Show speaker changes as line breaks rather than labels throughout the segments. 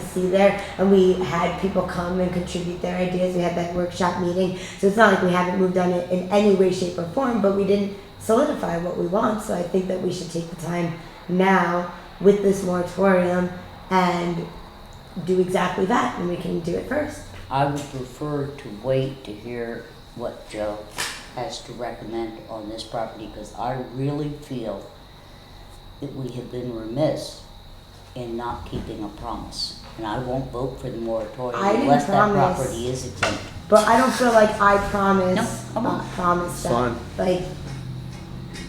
to see there and we had people come and contribute their ideas we had that workshop meeting so it's not like we haven't moved on it in any way shape or form but we didn't solidify what we want so i think that we should take the time now with this moratorium and do exactly that and we can do it first
I would prefer to wait to hear what Joe has to recommend on this property, because I really feel that we have been remiss in not keeping a promise. And I won't vote for the moratorium
I didn't
unless that
promise.
property is exempt.
but i don't feel like i promise
No, come on.
uh, promise that
Fine.
like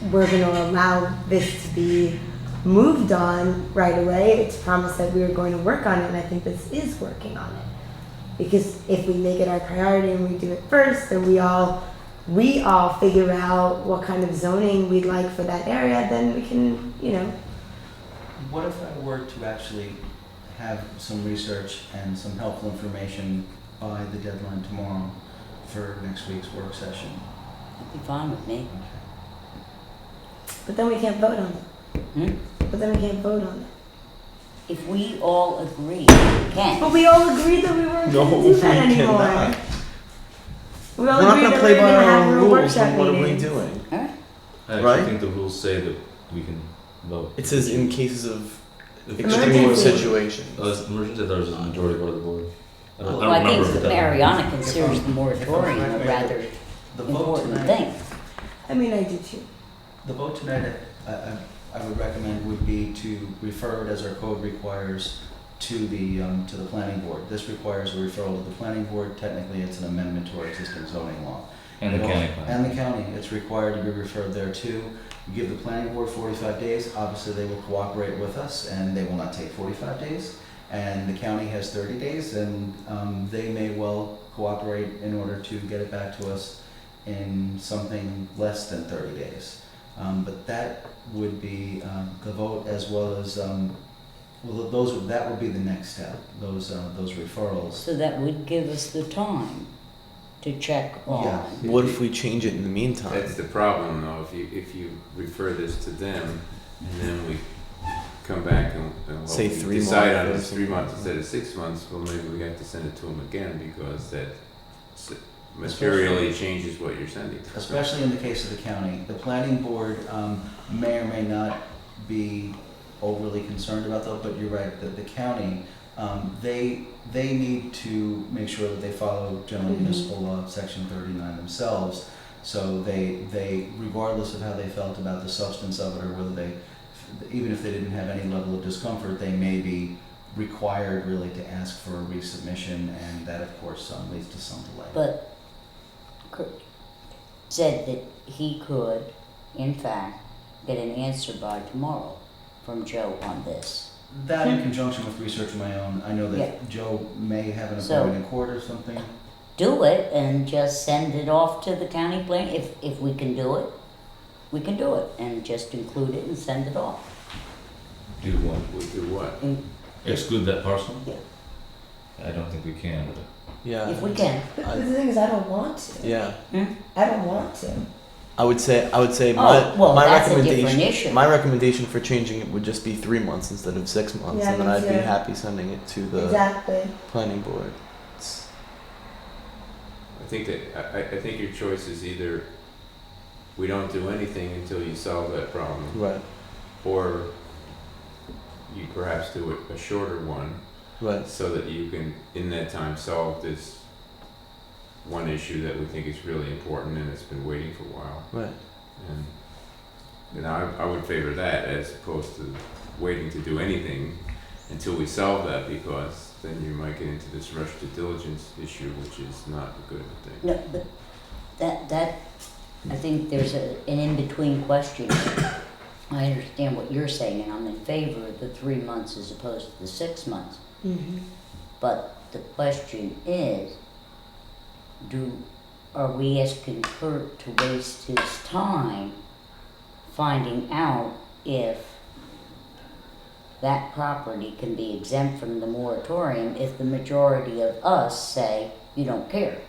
we're going to allow this to be moved on right away. It's promised that we were going to work on it, and I think this is working on it. Because if we make it our priority and we do it first, then we all we all figure out what kind of zoning we'd like for that area, then we can, you know,
What if I were to actually have some research and some helpful information by the deadline tomorrow for next week's work session?
That'd be fine with me.
but then we can't vote on it.
Hmm?
But then we can't vote on it.
If we all agree, we can.
But we all agreed that we weren't
No,
going to do
we
that anymore.
cannot.
We
We're
all
not
agreed that
gonna
we
play
were
by
going to
our
have
own
little
rules,
workshop
then what are we
meetings.
doing?
All right.
I actually
Right?
think the rules say that we can vote.
It says in cases of
If-
extreme
Emergency.
situations.
Oh, it's emergency, I thought it was a majority vote of the board. I don't,
Well,
I
I
don't remember.
think
if that-
Mariana considers the moratorium a rather
The vote
important
tonight,
thing.
I mean, I do too.
the vote tonight, I, I, I would recommend would be to refer it as our code requires to the, um, to the planning board. This requires a referral to the planning board. Technically, it's an amendment to our existing zoning law.
And the
It al-
county plan.
And the county, it's required to be referred there too. You give the planning board forty-five days, obviously they will cooperate with us and they will not take forty-five days. And the county has thirty days and, um, they may well cooperate in order to get it back to us in something less than thirty days. Um, but that would be, um, the vote as well as, um, well, those, that would be the next step, those, uh, those referrals.
So that would give us the time to check
Yeah.
Oh,
on.
What if we change it in the meantime?
That's the problem, though, if you, if you refer this to them, and then we come back and, and what
Say
we
three
decide
months
on
or
is three
something.
months instead of six months, well, maybe we have to send it to them again, because that s-
Especially-
materially changes what you're sending.
especially in the case of the county, the planning board um, may or may not be overly concerned about that, but you're right, that the county, um, they, they need to make sure that they follow general
Mhm.
municipal law, section thirty-nine themselves. So they, they, regardless of how they felt about the substance of it, or whether they, even if they didn't have any level of discomfort, they may be required really to ask for a resubmission, and that, of course, um, leads to some delay.
But Kurt said that he could, in fact, get an answer by tomorrow from Joe on this.
That in conjunction with research of my own, I know
Hmm. Yeah.
that Joe may have an
So-
appointment in court or something.
Do it and just send it off to the county plan, if, if we can do it, we can do it, and just include it and send it off.
Do what?
We do what?
And
Exclude that parcel?
Yeah.
I don't think we can.
if
Yeah,
we can,
But
I-
the thing is, I don't want to.
yeah.
I don't want to.
I would say I would say
oh,
my
well,
my
that's a different
recommendation
issue.
my recommendation for changing it would just be three months instead of six months,
Yeah,
and then
me
I'd be
too.
happy sending it to the
Exactly.
planning board. It's-
I think that, I, I- I think your choice is either we don't do anything until you solve that problem,
right,
or you perhaps do a, a shorter one,
right.
so that you can, in that time, solve this one issue that we think is really important and it's been waiting for a while.
Right.
And, and I, I would favor that as opposed to waiting to do anything until we solve that because then you might get into this rush to diligence issue, which is not a good thing.
No, but that, that, I think there's a, an in-between question. I understand what you're saying, and I'm in favor of the three months as opposed to the six months.
Mm-hmm.
But the question is, do, are we asking Kurt to waste his time finding out if that property can be exempt from the moratorium if the majority of us say, you don't care?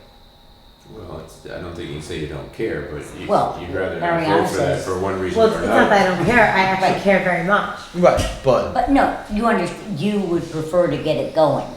Well, it's, I don't think you say you don't care, but you,
Well,
you'd rather not
Ariana
vote for that
says-
for one reason
Well,
or
it's
another.
not that I don't care. I actually
Right.
care very much.
Right, but
But no, you under, you would prefer to get it going.